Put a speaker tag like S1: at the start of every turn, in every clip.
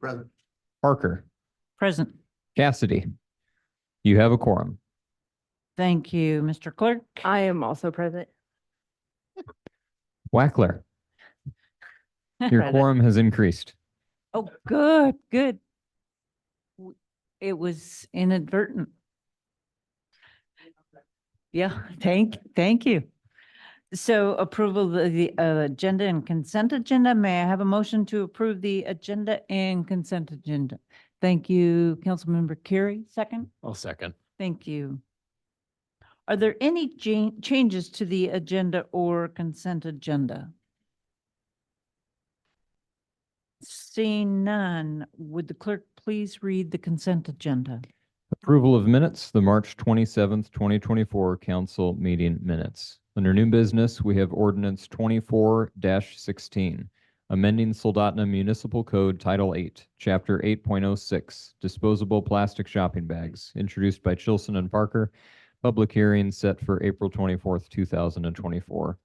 S1: Present.
S2: Parker,
S3: Present.
S2: Cassidy. You have a quorum.
S3: Thank you, Mr. Clerk.
S4: I am also present.
S2: Wackler, your quorum has increased.
S3: Oh, good, good. W- It was inadvertent. Yeah, thank, thank you. So approval of the uh, agenda and consent agenda. May I have a motion to approve the agenda and consent agenda? Thank you, Councilmember Carey, second.
S5: I'll second.
S3: Thank you. Are there any cha- changes to the agenda or consent agenda? Seeing none, would the clerk please read the consent agenda?
S2: Approval of minutes, the March twenty-seventh, twenty twenty-four council meeting minutes. Under new business, we have ordinance twenty-four sixteen, amending Soldotna Municipal Code Title Eight, Chapter eight point oh six, disposable plastic shopping bags, introduced by Chilson and Parker. Public hearing set for April twenty-fourth, two thousand and twenty-four.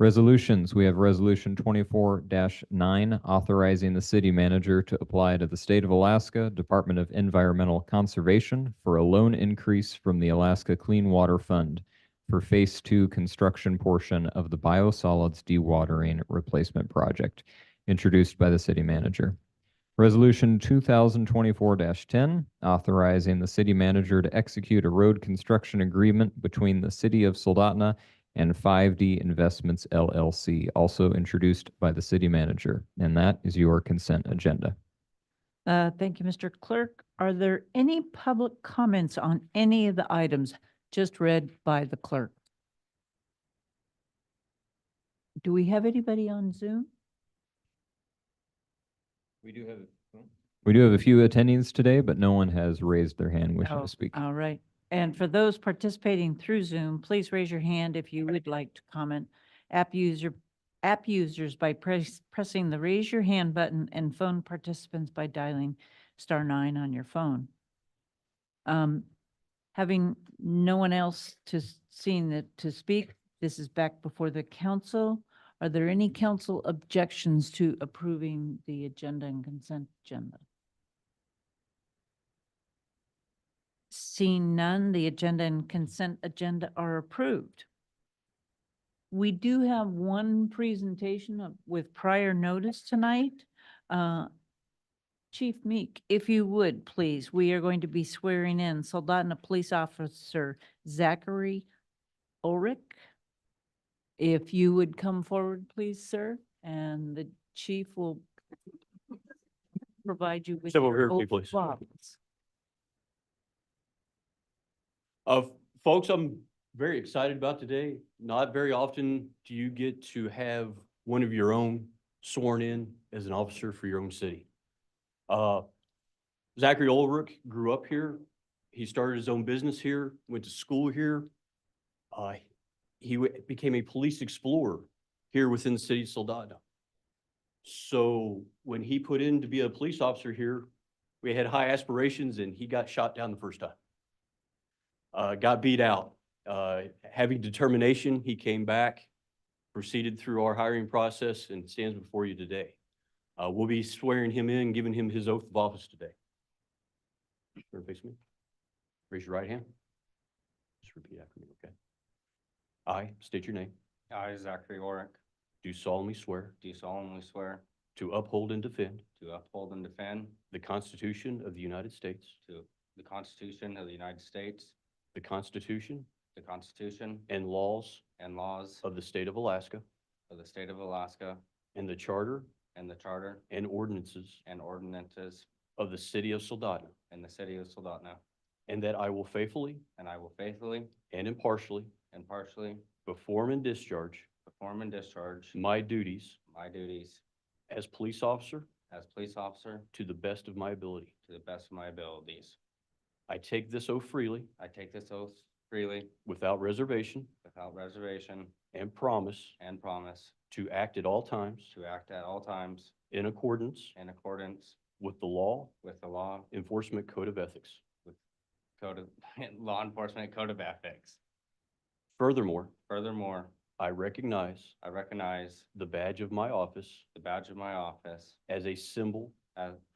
S2: Resolutions, we have Resolution twenty-four nine, authorizing the city manager to apply to the State of Alaska Department of Environmental Conservation for a loan increase from the Alaska Clean Water Fund for Phase Two construction portion of the biosolids dewatering replacement project, introduced by the city manager. Resolution two thousand twenty-four ten, authorizing the city manager to execute a road construction agreement between the city of Soldotna and 5D Investments LLC, also introduced by the city manager. And that is your consent agenda.
S3: Uh, Thank you, Mr. Clerk. Are there any public comments on any of the items just read by the clerk? Do we have anybody on Zoom?
S2: We do have. We do have a hmm? few attendees today, but no one has raised their hand wishing
S3: Oh,
S2: to speak.
S3: All right. And for those participating through Zoom, please raise your hand if you would like to comment. App user, app users by press, pressing the raise your hand button and phone participants by dialing star nine on your phone. Um, having no one else to s- seen that to speak, this is back before the council. Are there any council objections to approving the agenda and consent agenda? Seeing none, the agenda and consent agenda are approved. We do have one presentation of- with prior notice tonight. Uh, Chief Meek, if you would, please, we are going to be swearing in Soldotna Police Officer Zachary Ulrich. If you would come forward, please, sir, and the chief will provide you with
S5: Step over
S3: your
S5: here, if you
S3: oath of
S5: please.
S3: office.
S5: Uh, folks, I'm very excited about today. Not very often do you get to have one of your own sworn in as an officer for your own city. Uh, Zachary Ulrich grew up here. He started his own business here, went to school here. Uh, he w- became a police explorer here within the city of Soldado. So when he put in to be a police officer here, we had high aspirations and he got shot down the first time uh, got beat out. Uh, having determination, he came back, proceeded through our hiring process and stands before you today. Uh, we'll be swearing him in, giving him his oath of office today. Turn and face me. Raise your right hand. Just repeat after me, okay? I state your name.
S6: I, Zachary Oric,
S5: Do solemnly swear
S6: do solemnly swear
S5: to uphold and defend
S6: to uphold and defend
S5: the Constitution of the United States,
S6: to the Constitution of the United States,
S5: the Constitution
S6: the Constitution
S5: and laws
S6: and laws
S5: of the state of Alaska,
S6: of the State of Alaska,
S5: and the charter
S6: and the Charter
S5: and ordinances
S6: and ordinances
S5: of the city of Soldado,
S6: in the City of Soldotna,
S5: and that I will faithfully
S6: and I will faithfully
S5: and impartially
S6: and partially
S5: perform and discharge
S6: perform and discharge
S5: my duties
S6: my duties
S5: as police officer
S6: as police officer
S5: to the best of my ability.
S6: to the best of my abilities.
S5: I take this oath freely,
S6: I take this oath freely,
S5: without reservation,
S6: without reservation,
S5: and promise
S6: and promise
S5: to act at all times
S6: to act at all times
S5: in accordance
S6: in accordance
S5: with the law
S6: with the law
S5: enforcement code of ethics.
S6: code of, law enforcement code of ethics.
S5: Furthermore,
S6: Furthermore,
S5: I recognize
S6: I recognize
S5: the badge of my office
S6: the badge of my office
S5: as a symbol
S6: as,